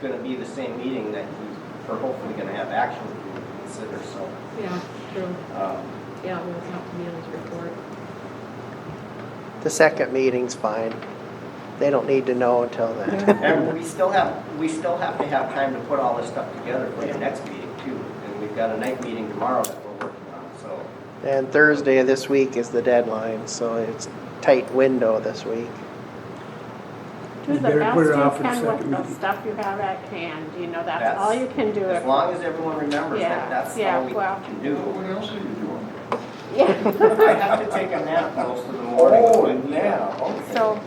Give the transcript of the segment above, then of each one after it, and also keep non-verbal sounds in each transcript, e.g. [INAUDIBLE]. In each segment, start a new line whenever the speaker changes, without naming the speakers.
gonna be the same meeting that you are hopefully gonna have action to consider, so,
Yeah, true.
um,
Yeah, we'll have to be on his report.
The second meeting's fine. They don't need to know until then.
and we still have, we still have to have time to put all this stuff together for the next meeting too. And we've got a night meeting tomorrow that we're working on, so,
And Thursday of this week is the deadline, so it's tight window this week.
Do
You
the
better
best
put it off
you
for the
can
second
with the
meeting.
stuff you have at hand, you know, that's
That's-
all you can do.
as long as everyone remembers
Yeah,
that, that's
yeah,
all we
well.
can do. [LAUGHS]
What else are you doing?
Yeah,
I have to take a nap most of the morning.
yeah, Oh,
[LAUGHS]
okay.
so,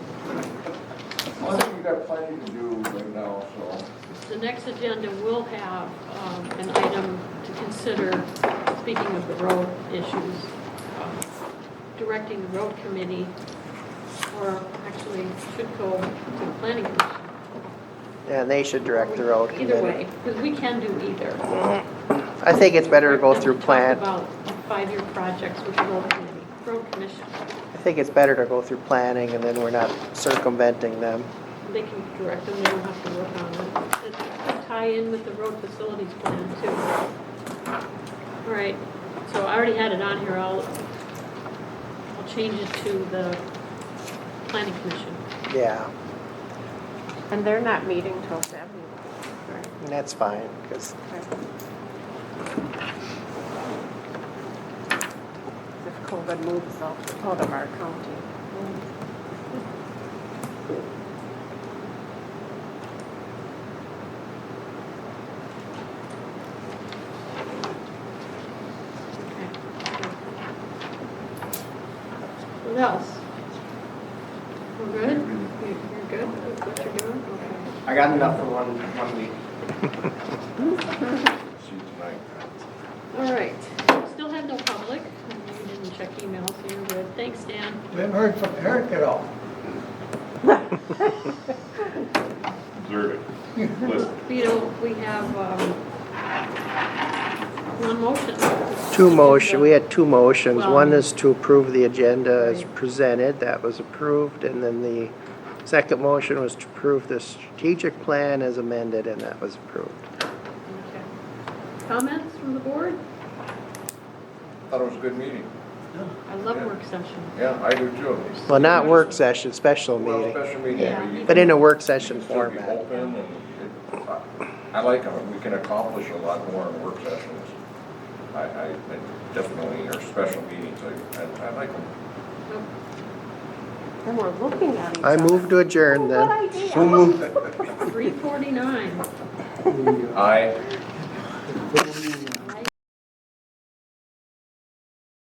I think we got plenty to do right now, so.
The next agenda will have um, an item to consider, speaking of the road issues, um, directing the road committee, or actually should go to the planning commission.
And they should direct the road
Either
committee.
way, because we can do either.
I think it's better to go through
plan.
plan,
Talk about five-year projects with the road committee, road commission.
I think it's better to go through planning and then we're not circumventing them.
They can direct them, they don't have to work on it. It could tie in with the road facilities plan too. All right, so I already had it on here, I'll, I'll change it to the planning commission.
Yeah,
and they're not meeting till seven.
and that's fine, because
If COVID moves out out of our county.
Okay. What else? We're good? You- You're good with what you're doing? Okay.
I got enough for one, one week.
See you tonight.
All right, still have no public, you didn't check email, so you're good. Thanks, Dan.
We haven't heard from Eric at all.
observe it,
[LAUGHS]
listen.
We don't, we have, um, one motion.
two motion, we had two motions.
Well-
One is to approve the agenda as
Right.
presented, that was approved, and then the second motion was to approve the strategic plan as amended, and that was approved.
Okay. Comments from the board?
Thought it was a good meeting.
I love work sessions.
Yeah, I do too.
Well, not work session, special
Well,
meeting,
special meeting.
Yeah.
you-
but in a work
you can
session
still be
format.
open and it- I- I like them. We can accomplish a lot more in work sessions. I, I I definitely, or special meetings, I, I I like them.
And we're looking at each
I
other.
move to adjourn
Good
then.
idea.
Three forty-nine.
We, uh,
Aye.